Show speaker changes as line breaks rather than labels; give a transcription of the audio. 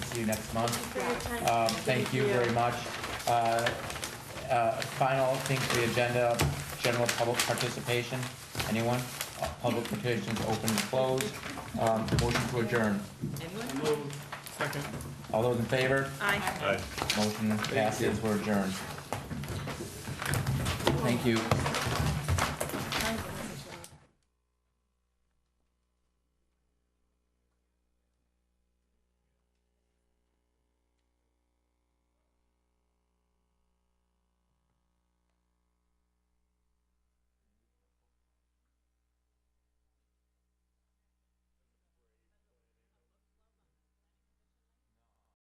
see you next month.
for your time.
Um, Thank you very much. Uh, uh, Final thing to the agenda, general public participation. Anyone? Uh, Public participation is open and closed. Um, Motion to adjourn.
Second.
All those in favor?
Aye.
Aye.
Motion passes, we're adjourned. Thank you.